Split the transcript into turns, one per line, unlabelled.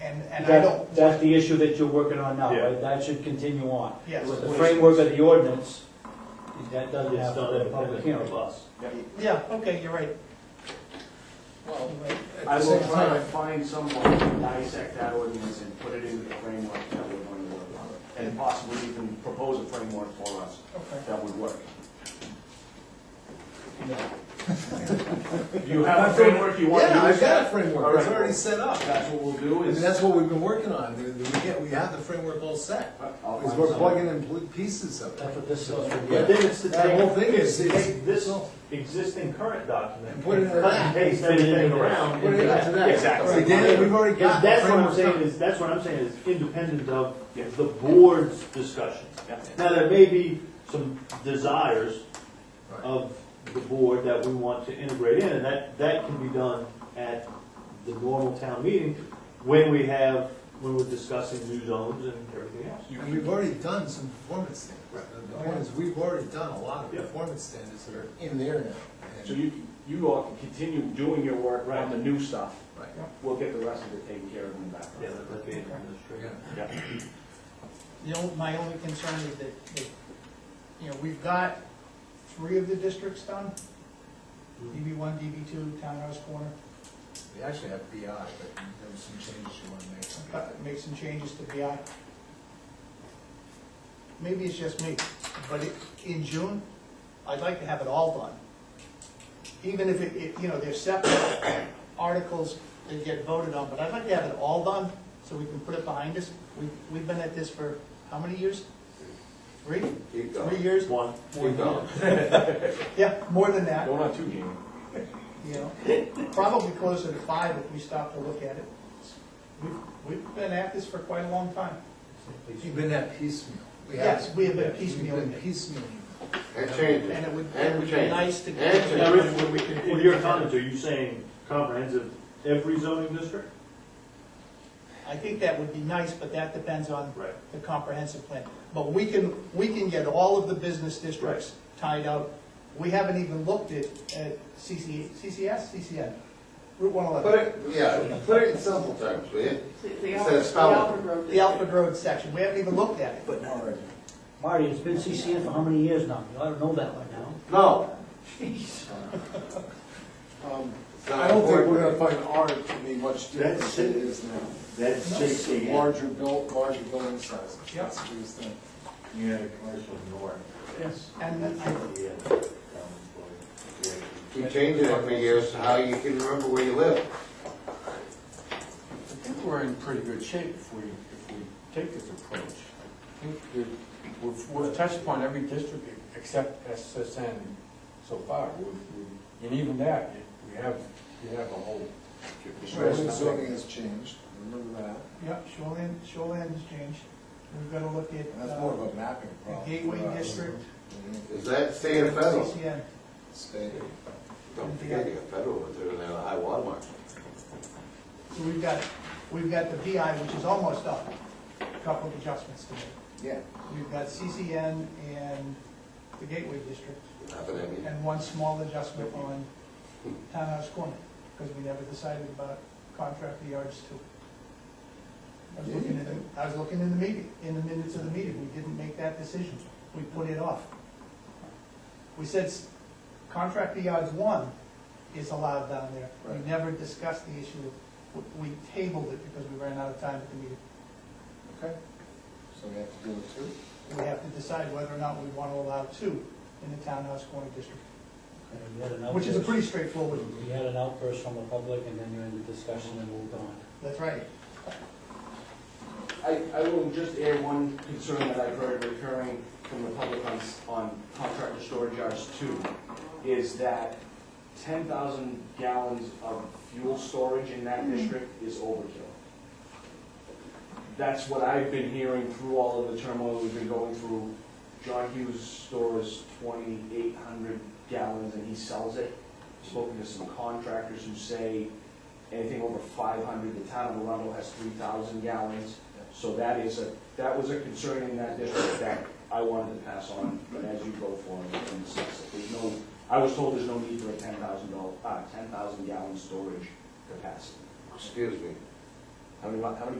and, and I don't,
That, that's the issue that you're working on now,
Yeah.
right? That should continue on.
Yes.
With the framework of the ordinance, that doesn't have a public hearing.
yeah, okay, you're right.
Well,
You're right.
at
I
the
will
same
try to
time,
find someone to dissect that ordinance and put it into the framework that we're going to work on. And possibly even propose a framework for us
Okay.
that would work.
No.
Do you have a framework you want to use?
yeah, I've got a
All
framework,
right.
it's already set up.
That's what we'll do
I mean,
is.
that's what we've been working on, The- the- we get, we have the framework all set.
I'll
Because
find
we're
someone.
plugging in pl- pieces of it.
That's what this is.
Yeah.
But then it's to
That whole
take,
thing is, is
take this existing current document,
And
and
put it in
cut and
that.
paste everything around.
Put it
into
into
that.
that.
Exactly.
We did it. We've already got the
That's what I'm
framework
saying
done.
is, that's what I'm saying is independent of
Yeah.
the board's discussion.
Yeah.
Now, there may be some desires of the board that we want to integrate in, and that, that can be done at the normal town meeting when we have, when we're discussing new zones and everything else.
And we've already done some performance standards. The- The point is, we've already done a lot of
Yeah.
performance standards that are in there now. And-
So you, you all can continue doing your work on the new stuff.
Right.
We'll get the rest of it taken care of in the background.
that'd be administrative.
Yeah.
Yeah.
The only, my only concern is that, that, you know, we've got three of the districts done. DB one, DB two, Townhouse Corner,
We actually have BI, but there were some changes you want to make. to BI.
Got to make some changes to BI. Maybe it's just me, but it- in June, I'd like to have it all done. Even if it- it, you know, there's separate articles that get voted on, but I'd like to have it all done so we can put it behind us. We, we've been at this for how many years? Three?
Keep
Three years?
One,
Keep going.
Yeah, more than that,
Going on two games.
you know, probably closer to five if we stop to look at it. We've, we've been at this for quite a long time.
You've been at piecemeal. We have-
Yes, we have been
We've
piecemealing
been
it.
piecemeal.
And change
And
it.
it would,
And
it would be
change.
nice to.
And change.
Now, Rich, when we- in your comments, are you saying comprehensive every zoning district?
I think that would be nice, but that depends on
Right.
the comprehensive plan. But we can, we can get all of the business districts tied out. We haven't even looked at, at CC, CCS, CCN, Route one
Put
eleven.
it, yeah, put it in simple terms, will you?
The- the
Instead
Alfred-
of spelling.
The Alfred Road.
The Alfred Road section, we haven't even looked at it.
But now,
Marty, it's been CCN for how many years now? You ought to know that right now.
No.
um,
it's not
I don't think
important.
we're gonna find art to be much different
That's
than it
it.
is now.
That's
Just larger built, larger building sizes.
Yep.
That's what he was thinking.
Yeah, commercial north.
Yes. And then I,
You change it every year, so how you can remember where you live.
I think we're in pretty good shape if we, if we take this approach. I think that we've, we've touched upon every district except SSN so far. We've- we- And even that, you- we have, we have a whole.
Shoreline zoning has changed, remember that?
yeah, shoreline, shoreline's changed. We've got to look at.
And that's
uh,
more of a mapping problem. Uh,
The Gateway
for us.
District.
Mhm.
Is that state or federal?
CCN.
State.
Don't forget, you got federal, but they're in the high water mark.
So we've got, we've got the BI, which is almost up, a couple of adjustments to make.
Yeah.
We've got CCN and the Gateway District,
Nothing in you.
and one small adjustment on Townhouse Corner, because we never decided about contract the yards too. I was looking in the, I was looking in the meeting, in the minutes of the meeting, we didn't make that decision, we put it off. We said s- contract the yards one is allowed down there, we
Right.
never discussed the issue, We- we tabled it because we ran out of time at the meeting.
Okay. So we have to do it too?
We have to decide whether or not we want to allow two in the Townhouse Corner District,
And you had an
which is a
outburst-
pretty straightforward,
You had an outburst from the public, and then you ended the discussion and moved on.
that's right.
I, I will just add one concern that I've heard recurring from the public on, s- on contractor storage yards too, is that ten thousand gallons of fuel storage in that district is overkill. That's what I've been hearing through all of the turmoil we've been going through. John Hughes stores twenty-eight hundred gallons and he sells it. Spoken to some contractors who say anything over five hundred, the town of Arundel has three thousand gallons. So that is a, that was a concern in that district that I wanted to pass on, but as you go forward and discuss it, there's no, I was told there's no need for a ten thousand dollar, uh, ten thousand gallon storage capacity.
Excuse me.
How many, how many